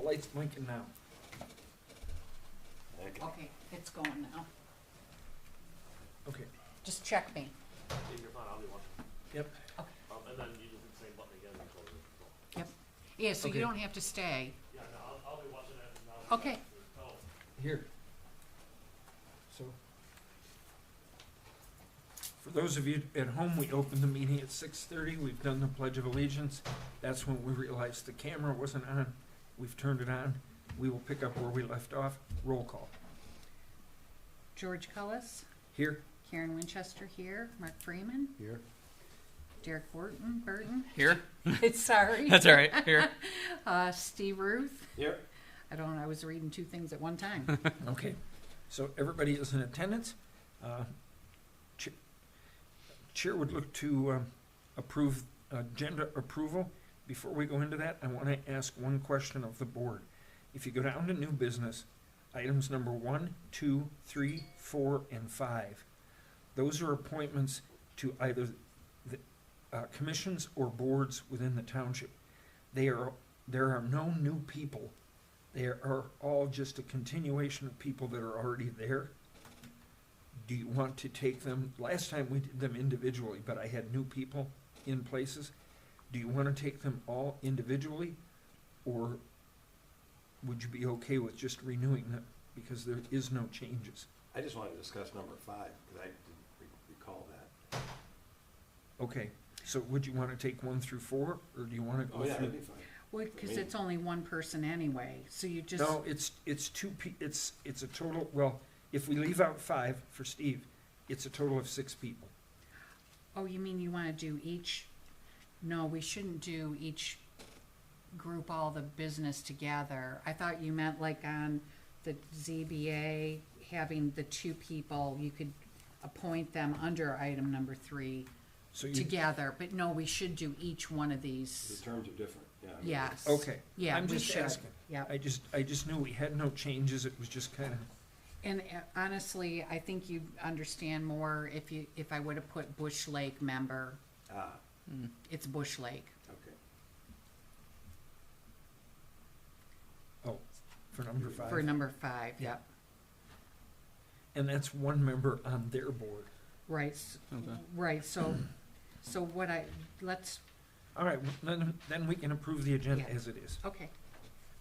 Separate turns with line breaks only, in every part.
light's blinking now.
Okay.
Okay, it's going now.
Okay,
Just check me.
Yeah, you're fine, I'll be watching.
yep.
Um, and then you just hit the same button again and close it.
Yep. Yeah, so
Okay.
you don't have to stay.
Yeah, no, I'll, I'll be watching it and I'll.
Okay.
Oh,
Here. So. For those of you at home, we opened the meeting at six thirty, we've done the Pledge of Allegiance. That's when we realized the camera wasn't on, we've turned it on, we will pick up where we left off, roll call.
George Cullis,
Here,
Karen Winchester here, Mark Freeman,
Here.
Derek Wharton, Burton,
Here?
it's sorry.
That's all right. Here.
Uh, Steve Ruth.
Here.
I don't, I was reading two things at one time.
Okay, so everybody is in attendance. Uh, chair- Chair would look to um, approve, uh, agenda approval. Before we go into that, I want to ask one question of the board. If you go down to new business, items number one, two, three, four, and five, those are appointments to either the uh, commissions or boards within the township. They are, there are no new people they are all just a continuation of people that are already there. Do you want to take them, last time we did them individually, but I had new people in places. Do you want to take them all individually? Or would you be okay with just renewing them because there is no changes?
I just want to discuss number five, because I didn't re- recall that.
Okay, so would you want to take one through four or do you want to
Oh,
go
yeah, that'd
through?
be fine.
Well, because it's only one person anyway, so you just,
No, it's, it's two, pe- it's, it's a total, well, if we leave out five for Steve, it's a total of six people.
oh, you mean you want to do each? No, we shouldn't do each group all the business together. I thought you meant like on the ZBA, having the two people, you could appoint them under item number three
So you,
together, but no, we should do each one of
The
these.
terms are different, yeah. I mean,
Yes.
Okay.
Yeah,
I'm
we
just
should.
asking.
Yep.
I just, I just knew we had no changes, it was just kind of,
And uh, honestly, I think you'd understand more if you, if I would have put Bush Lake member,
Ah,
Hmm,
it's Bush Lake.
okay.
oh, for number
For
five.
number five,
Yeah.
yep,
And that's one member on their board.
right, s-
Okay.
right, so, so what I, let's,
All right, well, then, then we can approve the agenda
Yeah.
as it is.
okay.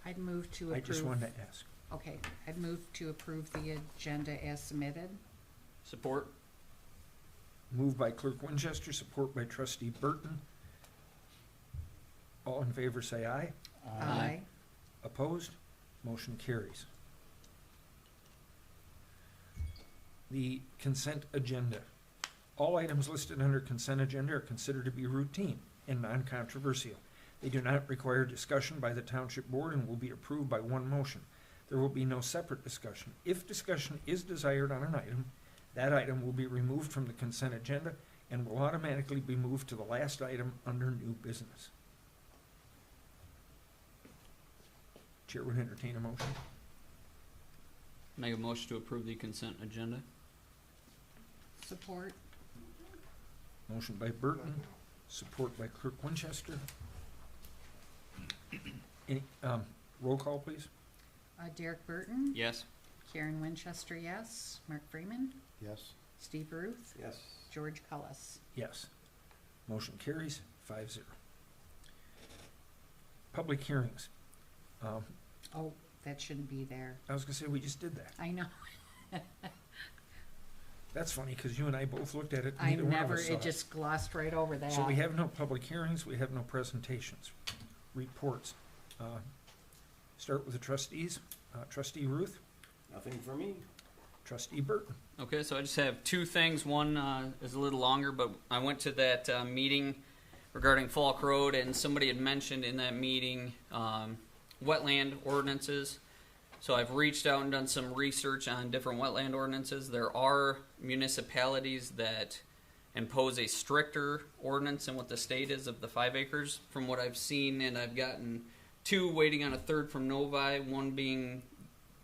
I'd move to approve.
I just wanted to ask.
Okay, I'd move to approve the agenda as submitted.
Support.
Moved by Clerk Winchester, support by Trustee Burton. All in favor, say aye.
Aye.
Opposed? Motion carries. The consent agenda. All items listed under consent agenda are considered to be routine and non-controversial. They do not require discussion by the township board and will be approved by one motion. There will be no separate discussion. If discussion is desired on an item, that item will be removed from the consent agenda and will automatically be moved to the last item under new business. Chair would entertain a motion.
Make a motion to approve the consent agenda.
Support,
Motion by Burton, support by Clerk Winchester. Any, um, roll call, please.
uh, Derek Burton,
Yes.
Karen Winchester, yes, Mark Freeman,
Yes.
Steve Ruth,
Yes.
George Cullis.
Yes. Motion carries five zero. Public hearings. Um,
Oh, that shouldn't be there.
I was gonna say, we just did that.
I know,
That's funny, cause you and I both looked at it,
I
neither one of
never,
us saw
it
it.
just glossed right over that.
So we have no public hearings, we have no presentations, reports. Uh, Start with the trustees, uh, trustee Ruth,
Nothing for me?
trustee Burton.
Okay, so I just have two things. One uh, is a little longer, but I went to that uh, meeting regarding Falk Road, and somebody had mentioned in that meeting um, wetland ordinances. So I've reached out and done some research on different wetland ordinances. There are municipalities that impose a stricter ordinance than what the state is of the five acres, from what I've seen, and I've gotten two waiting on a third from Novi, one being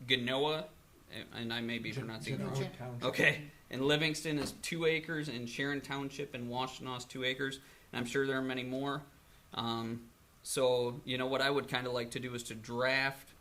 Genoa, and- and I may be
Gen-
pronouncing it
Genoa
wrong.
Township.
Okay. And Livingston is two acres, and Sharon Township and Washtenaw is two acres, and I'm sure there are many more. Um, so, you know, what I would kind of like to do is to draft